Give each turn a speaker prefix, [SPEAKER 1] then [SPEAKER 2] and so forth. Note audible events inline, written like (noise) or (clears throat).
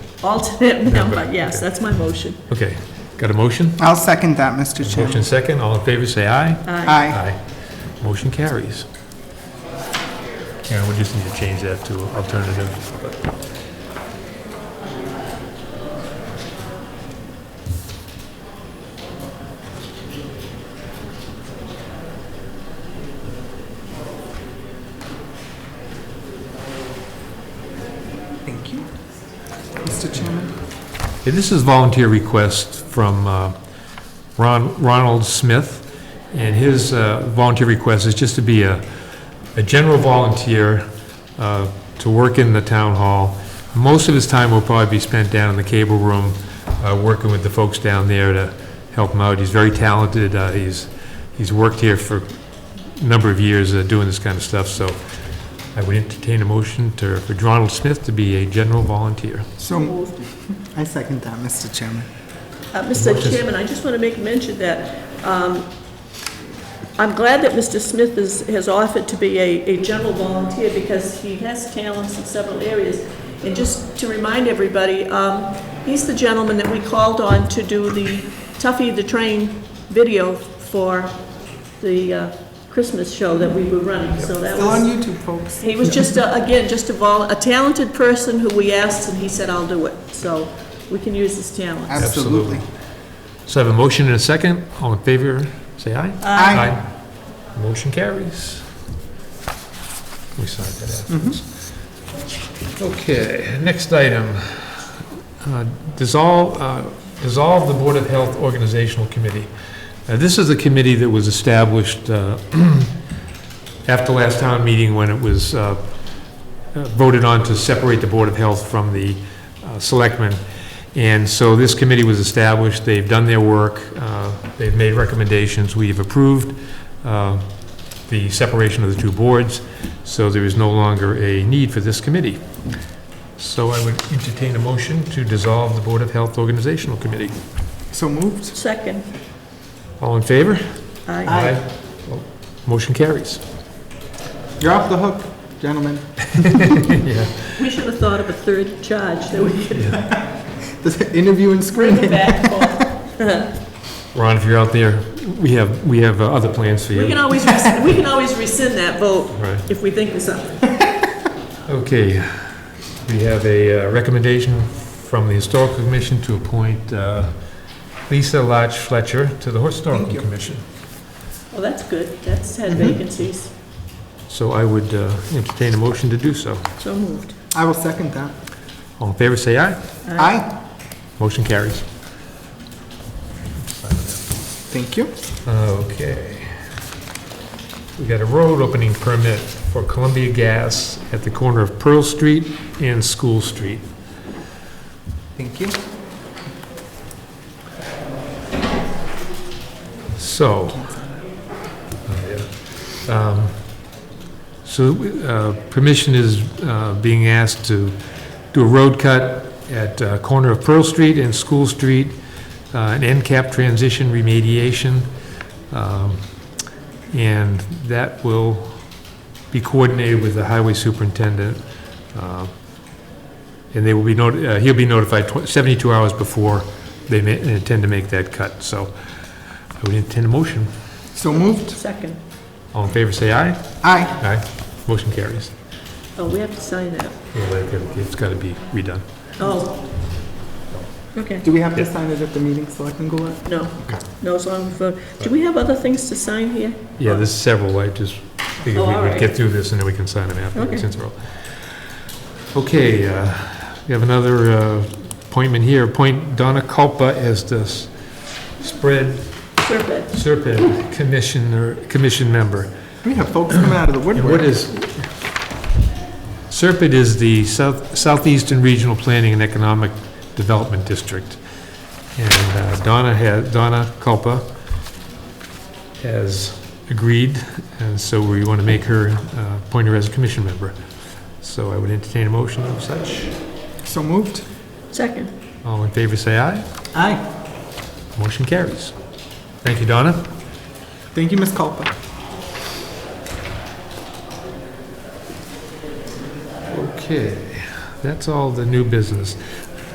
[SPEAKER 1] alternate member, yes,
[SPEAKER 2] okay.
[SPEAKER 1] that's my motion.
[SPEAKER 2] Okay, got a motion?
[SPEAKER 3] I'll second that, Mr.
[SPEAKER 2] Motion
[SPEAKER 3] Chairman.
[SPEAKER 2] second, all in favor, say aye.
[SPEAKER 1] Aye.
[SPEAKER 3] Aye.
[SPEAKER 2] Motion carries. Karen, we just need to change that to alternative.
[SPEAKER 3] Thank you. Mr. Chairman?
[SPEAKER 2] Hey, This is volunteer request from uh, Ron Ronald Smith, and his uh, volunteer request is just to be a, a general volunteer uh, to work in the town hall. Most of his time will probably be spent down in the cable room, uh, working with the folks down there to help him out. He's very talented, uh, he's, he's worked here for a number of years uh, doing this kind of stuff, so I would entertain a motion to, for Ronald Smith to be a general volunteer.
[SPEAKER 3] So, I second that, Mr. Chairman.
[SPEAKER 1] Uh, Mr. Chairman, I just want to make mention that um, I'm glad that Mr. Smith is, has offered to be a, a general volunteer because he has talents in several areas. And just to remind everybody, um, he's the gentleman that we called on to do the Tuffy the Train video for the uh, Christmas show that we were running, so that was...
[SPEAKER 3] Still on YouTube, folks.
[SPEAKER 1] He was just, a- again, just a vol, a talented person who we asked, and he said, "I'll do it." So we can use his talent.
[SPEAKER 3] Absolutely.
[SPEAKER 2] So I have a motion and a second. All in favor, say aye.
[SPEAKER 3] Aye.
[SPEAKER 2] Aye. Motion carries. We signed that afterwards. Okay, next item. Uh, Dissolve, uh, dissolve the Board of Health Organizational Committee. Uh, This is a committee that was established uh, (clears throat) after last town meeting when it was uh, uh, voted on to separate the Board of Health from the uh, Selectmen. And so this committee was established, they've done their work, uh, they've made recommendations, we've approved uh, the separation of the two boards, so there is no longer a need for this committee. So I would entertain a motion to dissolve the Board of Health Organizational Committee.
[SPEAKER 3] So moved.
[SPEAKER 1] Second,
[SPEAKER 2] All in favor?
[SPEAKER 1] I,
[SPEAKER 2] Well, Motion carries.
[SPEAKER 3] You're off the hook, gentlemen. (laughs)
[SPEAKER 2] Yeah.
[SPEAKER 1] we should have thought of a third charge that we could
[SPEAKER 3] The interview and
[SPEAKER 1] bring it
[SPEAKER 3] screening.
[SPEAKER 1] back for.
[SPEAKER 2] Ron, if you're out there, we have, we have uh, other plans for you.
[SPEAKER 1] We can always, rescind- we can always rescind that vote
[SPEAKER 2] Right.
[SPEAKER 1] if we think of something.
[SPEAKER 2] Okay, we have a uh, recommendation from the Historical Commission to appoint uh, Lisa Lodge Fletcher to the Historical
[SPEAKER 3] Thank you.
[SPEAKER 2] Commission.
[SPEAKER 1] Well, that's good. That's had vacancies,
[SPEAKER 2] So I would uh, entertain a motion to do so.
[SPEAKER 1] so moved.
[SPEAKER 3] I will second that.
[SPEAKER 2] All in favor, say aye.
[SPEAKER 3] Aye.
[SPEAKER 2] Motion carries.
[SPEAKER 3] Thank you.
[SPEAKER 2] Okay. We got a road opening permit for Columbia Gas at the corner of Pearl Street and School Street.
[SPEAKER 3] Thank you.
[SPEAKER 2] So, oh, yeah. Um, so uh, permission is uh, being asked to do a road cut at uh, corner of Pearl Street and School Street, uh, an end cap transition remediation. Um, And that will be coordinated with the highway superintendent. uh, And they will be, noti- uh, he'll be notified tw- 72 hours before they ma- intend to make that cut. So I would intend a motion.
[SPEAKER 3] So moved.
[SPEAKER 1] Second.
[SPEAKER 2] All in favor, say aye.
[SPEAKER 3] Aye.
[SPEAKER 2] Aye. Motion carries.
[SPEAKER 1] Oh, we have to sign that.
[SPEAKER 2] Well, it- It's got to be redone.
[SPEAKER 1] Oh. Okay,
[SPEAKER 3] Do we have to sign it at the meeting, Selectman Goulart?
[SPEAKER 1] no, no, as long as, we vote. do we have other things to sign here?
[SPEAKER 2] Yeah, there's several, I just figured
[SPEAKER 1] Oh,
[SPEAKER 2] we
[SPEAKER 1] all
[SPEAKER 2] would
[SPEAKER 1] right.
[SPEAKER 2] get through this and then we can sign them after,
[SPEAKER 1] Okay.
[SPEAKER 2] since we're all... Okay, uh, we have another uh, appointment here, appoint Donna Culpa as the s- spread
[SPEAKER 1] Survey.
[SPEAKER 2] serpent commissioner, commission member.
[SPEAKER 3] We have folks coming out of the
[SPEAKER 2] And What
[SPEAKER 3] woodwork.
[SPEAKER 2] is, Serpent is the South Southeastern Regional Planning and Economic Development District. And uh, Donna has, Donna Culpa has agreed, and so we want to make her, uh, appoint her as a commission member. So I would entertain a motion of such.
[SPEAKER 3] So moved.
[SPEAKER 1] Second.
[SPEAKER 2] All in favor, say aye.
[SPEAKER 3] Aye.
[SPEAKER 2] Motion carries. Thank you, Donna.
[SPEAKER 3] Thank you, Ms. Culpa.
[SPEAKER 2] Okay, that's all the new business.